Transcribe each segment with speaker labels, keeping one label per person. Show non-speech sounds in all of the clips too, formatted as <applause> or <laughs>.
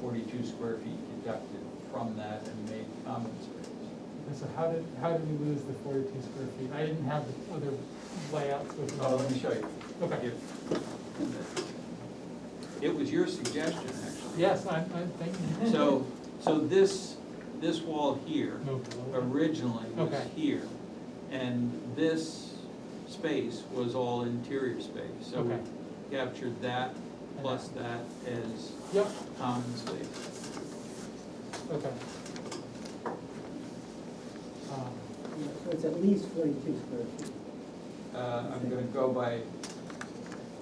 Speaker 1: forty-two square feet deducted from that and made common space.
Speaker 2: And so how did, how did we lose the forty-two square feet? I didn't have the other layouts with.
Speaker 1: Oh, let me show you.
Speaker 2: Okay.
Speaker 1: If- It was your suggestion, <laughs> actually.
Speaker 2: Yes, I'm, I'm thinking.
Speaker 1: So, so this, this wall here
Speaker 2: No, below.
Speaker 1: originally was
Speaker 2: Okay.
Speaker 1: here. And this space was all interior space. So we
Speaker 2: Okay.
Speaker 1: captured that plus that as
Speaker 2: Yep,
Speaker 1: common space.
Speaker 2: okay. Um,
Speaker 3: Yeah, So it's at least forty-two square feet.
Speaker 1: Uh, I'm gonna go by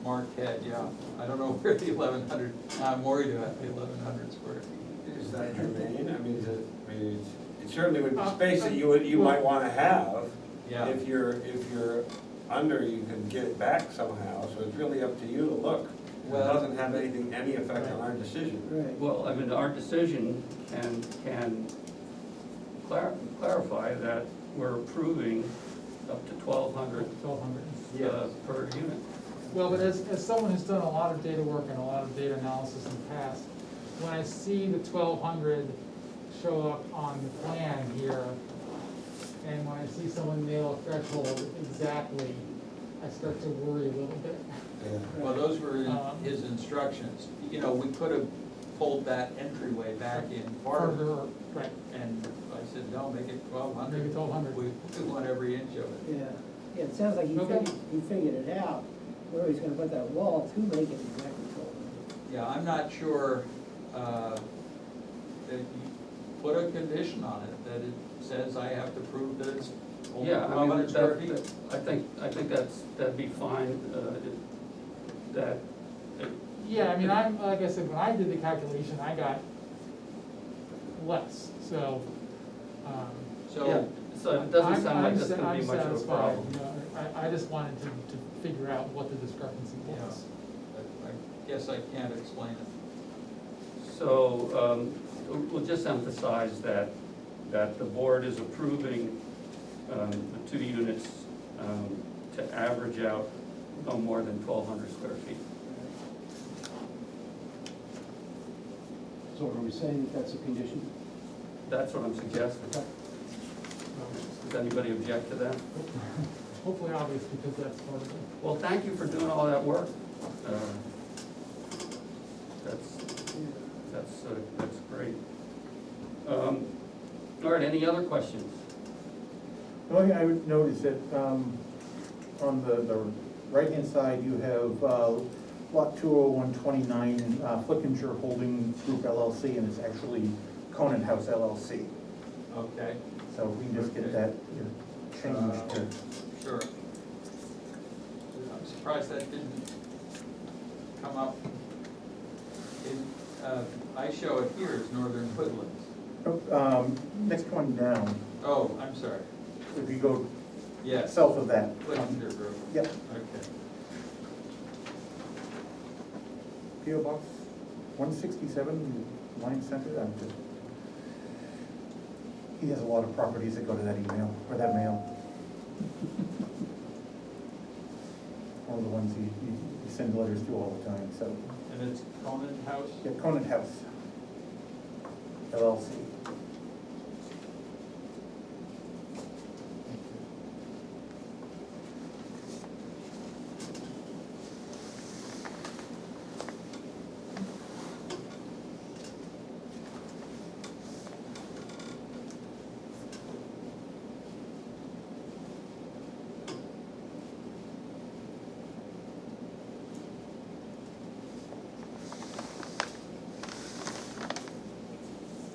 Speaker 1: Mark Head, yeah. I don't know <laughs> where the eleven hundred, I'm worried about the eleven hundred square feet.
Speaker 4: Is that germane? I mean, is it, I mean, it's- it certainly would be space that you would, you
Speaker 2: Uh,
Speaker 4: might wanna have.
Speaker 1: Yeah,
Speaker 4: If you're, if you're under, you can get it back somehow, so it's really up to you to look. It
Speaker 1: Well-
Speaker 4: doesn't have anything, any effect on our decision.
Speaker 3: Right.
Speaker 5: Well, I mean, our decision can, can clar- clarify that we're approving up to twelve hundred uh,
Speaker 2: Twelve hundred.
Speaker 1: Yes.
Speaker 5: per unit.
Speaker 2: Well, but as, as someone who's done a lot of data work and a lot of data analysis in the past, when I see the twelve hundred show up on the plan here, and when I see someone nail a threshold exactly, I start to worry a little bit.
Speaker 1: well, those were in
Speaker 2: Um,
Speaker 1: his instructions. You know, we could have pulled that entryway back in farther,
Speaker 5: Uh-huh.
Speaker 2: Harder, right,
Speaker 1: and I said, no, make it twelve hundred.
Speaker 2: Make it 1,200.
Speaker 1: We we want every inch of it.
Speaker 3: Yeah, yeah, it sounds like he
Speaker 2: Okay.
Speaker 3: figured, he figured it out, where he's gonna put that wall to make it exactly twelve hundred.
Speaker 1: Yeah, I'm not sure, uh, that you put a condition on it, that it says I have to prove that it's only
Speaker 5: Yeah, I
Speaker 1: twelve
Speaker 5: mean,
Speaker 1: hundred square
Speaker 5: that,
Speaker 1: feet.
Speaker 5: that- I think, I think that's, that'd be fine, uh, it- that. it-
Speaker 2: yeah, I mean, I'm, like I said, when I did the calculation, I got less, so, um,
Speaker 5: Yeah,
Speaker 1: So,
Speaker 5: so it doesn't
Speaker 2: I'm-
Speaker 5: sound like
Speaker 2: I'm
Speaker 5: that's
Speaker 2: sa-
Speaker 5: gonna be
Speaker 2: I'm
Speaker 5: much of a
Speaker 2: satisfied,
Speaker 5: problem.
Speaker 2: you know, I, I just wanted to, to figure out what the discrepancy was.
Speaker 1: I I guess I can't explain it.
Speaker 5: So, um, we'll- we'll just emphasize that, that the board is approving, um, the two units, um, to average out no more than twelve hundred square feet.
Speaker 6: So are we saying that that's a condition?
Speaker 5: That's what I'm suggesting. Does anybody object to that?
Speaker 2: Hopefully obvious, because that's part of it.
Speaker 5: Well, thank you for doing all that work. Uh, That's, that's, uh, that's great. Um, all right, any other questions?
Speaker 6: The only thing I would note is that, um, on the, the right-hand side, you have, uh, lot two oh one twenty-nine, uh, Flickinger Holding Group LLC, and it's actually Conan House LLC.
Speaker 1: Okay,
Speaker 6: So we can just get that you know, changed to,
Speaker 1: Um, sure. I'm surprised that didn't come up. In, uh, I show it here as Northern Woodlands.
Speaker 6: Oh, um, next one down,
Speaker 1: Oh, I'm sorry.
Speaker 6: if you go
Speaker 1: Yes,
Speaker 6: south of that. um,
Speaker 1: Lichtenberg Road,
Speaker 6: Yep,
Speaker 1: okay.
Speaker 6: PO Box one sixty-seven, Line Center, I'm just. He has a lot of properties that go to that email, or that mail. <laughs> One of the ones he, he he sends letters to all the time, so,
Speaker 1: And it's Conant House?
Speaker 6: yeah, Conant House. LLC.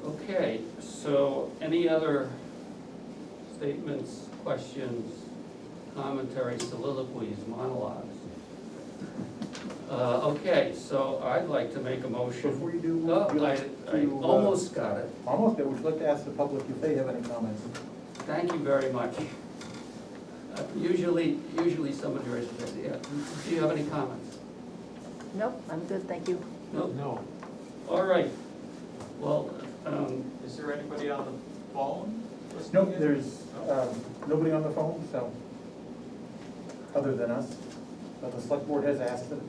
Speaker 5: Okay, so any other statements, questions, commentary, soliloquies, monologues? Uh, okay, so I'd like to make a motion.
Speaker 6: Before you do,
Speaker 5: Oh,
Speaker 6: would you
Speaker 5: I,
Speaker 6: like
Speaker 5: I
Speaker 6: to, uh,
Speaker 5: almost got it.
Speaker 6: Almost, I would like to ask the public if they have any comments.
Speaker 5: Thank you very much. Uh, Usually, usually somebody raises their hand. Yeah. Do you have any comments?
Speaker 7: Nope, I'm good, thank you.
Speaker 5: No?
Speaker 2: No.
Speaker 5: All right. Well, um,
Speaker 1: Is there anybody on the phone? listening
Speaker 6: Nope,
Speaker 1: in?
Speaker 6: there's, um, nobody on the phone, so, other than us. But the select board has asked that